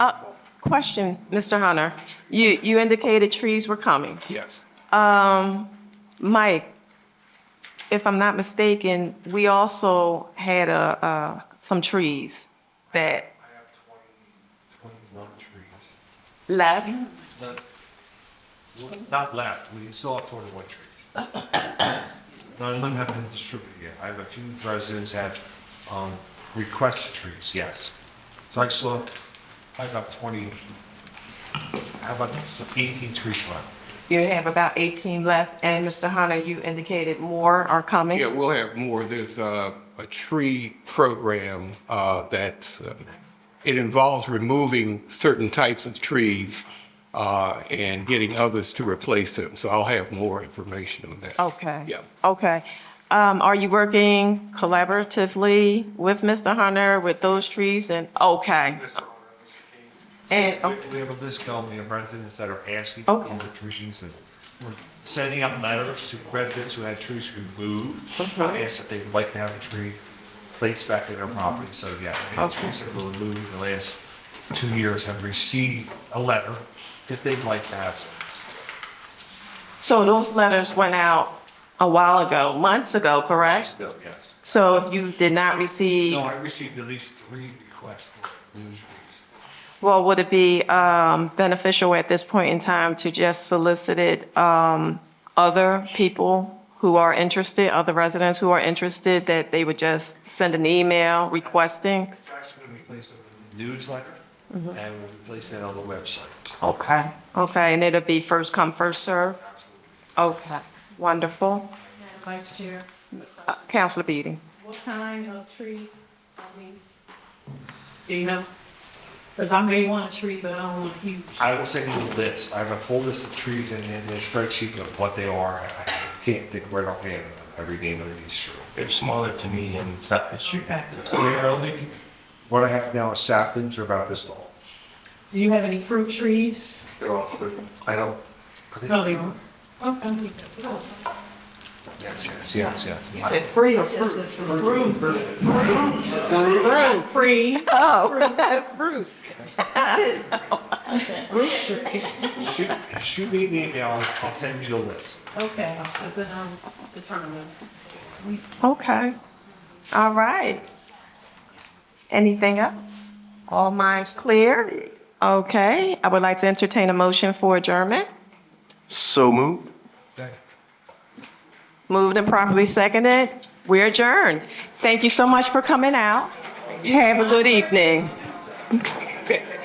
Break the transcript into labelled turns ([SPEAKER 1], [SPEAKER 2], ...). [SPEAKER 1] Uh, Question, Mr. Hunter. You, you indicated trees were coming.
[SPEAKER 2] Yes.
[SPEAKER 1] Mike, if I'm not mistaken, we also had a, uh, some trees that
[SPEAKER 3] I have twenty, twenty-one trees.
[SPEAKER 1] left.
[SPEAKER 3] Not, not left, we still have twenty-one trees. None of them have been distributed yet. I have a few residents have, um, requested trees, yes. So I still, have- I have twenty, I have about eighteen trees left.
[SPEAKER 1] You have about 18 left, and Mr. Hunter, you indicated more are coming.
[SPEAKER 2] Yeah, we'll have more. There's uh, a tree program uh, that, uh, it involves removing certain types of trees uh, and getting others to replace them. So I'll have more information on that.
[SPEAKER 1] Okay.
[SPEAKER 2] Yeah.
[SPEAKER 1] Okay. Um, are you working collaboratively with Mr. Hunter with those trees and, okay. And, oh,
[SPEAKER 3] We have a list going, we have residents that are asking for
[SPEAKER 1] Okay.
[SPEAKER 3] trees, and we're sending out letters to residents who had trees removed.
[SPEAKER 1] Mhm.
[SPEAKER 3] Asked if they would like to have a tree placed back in their property, so yeah, the
[SPEAKER 1] Okay.
[SPEAKER 3] trees that were removed in the last two years have received a letter if they'd like to have. some.
[SPEAKER 1] so those letters went out a while ago, months ago, correct?
[SPEAKER 3] No, yes.
[SPEAKER 1] So if you did not receive,
[SPEAKER 3] No, I received at least three requests for trees.
[SPEAKER 1] well, would it be, um, beneficial at this point in time to just solicit it, um, other people who are interested, other residents who are interested, that they would just send an email requesting?
[SPEAKER 3] It's actually going to be placed on the newsletter, and we'll be placing it on the website.
[SPEAKER 1] Okay. Okay, and it'll be first come, first serve. Okay, wonderful.
[SPEAKER 4] Vice Chair,
[SPEAKER 1] Uh, Counselor Beatty?
[SPEAKER 4] what kind of tree are these? Do you know? Because I may want a tree, but I don't want a huge.
[SPEAKER 3] I will send you a list. I have a full list of trees and then a spreadsheet of what they are. I I can't think right offhand of every name of these trees.
[SPEAKER 5] They're smaller to me and it's not it's true.
[SPEAKER 4] Okay.
[SPEAKER 3] They're only, what I have now is saplings are about this tall.
[SPEAKER 4] Do you have any fruit trees?
[SPEAKER 3] They're all, I don't.
[SPEAKER 4] No, they don't. Okay. Yes,
[SPEAKER 3] Yes, yes, yes, yes.
[SPEAKER 1] free or
[SPEAKER 4] yes, fruits.
[SPEAKER 1] Fruit.
[SPEAKER 4] Free.
[SPEAKER 1] Oh, fruit.
[SPEAKER 4] Fruit tree.
[SPEAKER 3] Shoot, shoot me an email. I'll send you a list.
[SPEAKER 4] Okay, is it, um, determined?
[SPEAKER 1] Okay, all right. Anything else? All minds clear? Okay, I would like to entertain a motion for adjournment.
[SPEAKER 5] So moved.
[SPEAKER 1] Moved and properly seconded, we're adjourned. Thank you so much for coming out. Have a good evening.